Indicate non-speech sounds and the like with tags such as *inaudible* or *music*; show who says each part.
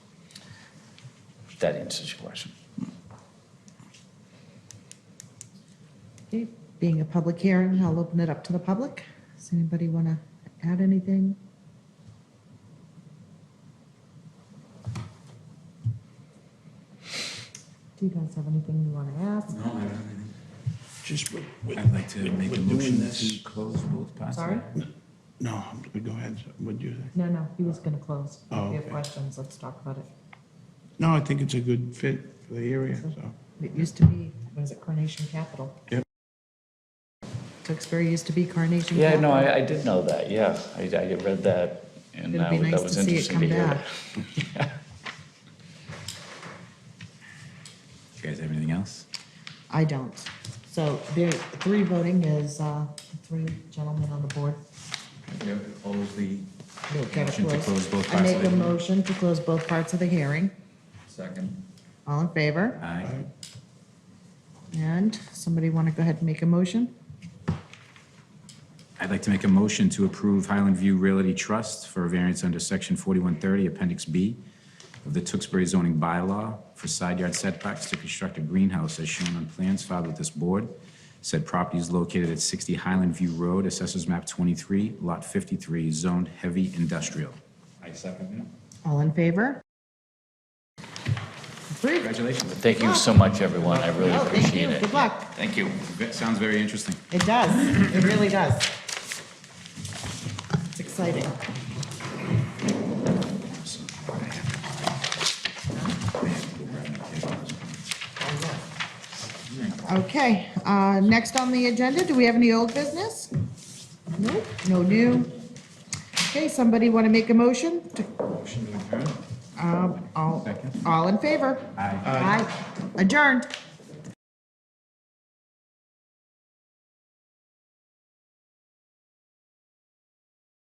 Speaker 1: that answers your question.
Speaker 2: Okay, Being a public hearing, I'll open it up to the public. Does anybody want to add anything? Do you guys have anything you want to ask?
Speaker 3: Just, with- with-
Speaker 4: I'd like to make a
Speaker 3: with doing
Speaker 4: motion
Speaker 3: this-
Speaker 4: to close both parts.
Speaker 2: Sorry?
Speaker 3: No, go ahead, what'd you think?
Speaker 2: No, no, he was going to close.
Speaker 3: Oh,
Speaker 2: If you have
Speaker 3: okay.
Speaker 2: questions, let's talk about it.
Speaker 3: No, I think it's a good fit for the area, so.
Speaker 2: It used to be, what is it, Carnation Capital?
Speaker 3: Yep.
Speaker 2: Tewksbury used to be Carnation
Speaker 1: Yeah,
Speaker 2: Capital.
Speaker 1: no, I, I did know that, yeah. I, I read that, and
Speaker 2: It'll be
Speaker 1: that
Speaker 2: nice
Speaker 1: was
Speaker 2: to see it
Speaker 1: interesting
Speaker 2: come
Speaker 1: to hear.
Speaker 2: back.
Speaker 1: that.
Speaker 4: *laughs* You guys have anything else?
Speaker 2: I don't. So there, three voting is, uh, three gentlemen on the board.
Speaker 4: Yeah, close the.
Speaker 2: We'll get it
Speaker 4: Motion to
Speaker 2: closed.
Speaker 4: close both
Speaker 2: I
Speaker 4: parts of
Speaker 2: make a
Speaker 4: the-
Speaker 2: motion to close both parts of the hearing.
Speaker 4: Second.
Speaker 2: All in favor?
Speaker 4: Aye.
Speaker 2: And somebody want to go ahead and make a motion?
Speaker 4: I'd like to make a motion to approve Highland View Realty Trust for a variance under section forty-one thirty, appendix B of the Tewksbury zoning bylaw for side yard setbacks to construct a greenhouse as shown on plans filed with this board. Said property is located at sixty Highland View Road, assessors map twenty-three, lot fifty-three, zoned heavy industrial. I second
Speaker 2: All in favor? Approved.
Speaker 4: Congratulations.
Speaker 1: Thank you so much, everyone, I really
Speaker 2: Oh, thank you.
Speaker 1: appreciate it.
Speaker 2: Good luck.
Speaker 4: Thank you. Sounds very interesting.
Speaker 2: It does. It really does. It's exciting. Okay, uh, next on the agenda, do we have any old business? Nope, no new. Okay, somebody want to make a motion? to-
Speaker 4: Motion to adjourn.
Speaker 2: Um, All
Speaker 4: Second.
Speaker 2: all in favor?
Speaker 4: Aye.
Speaker 2: Aye. Adjourned.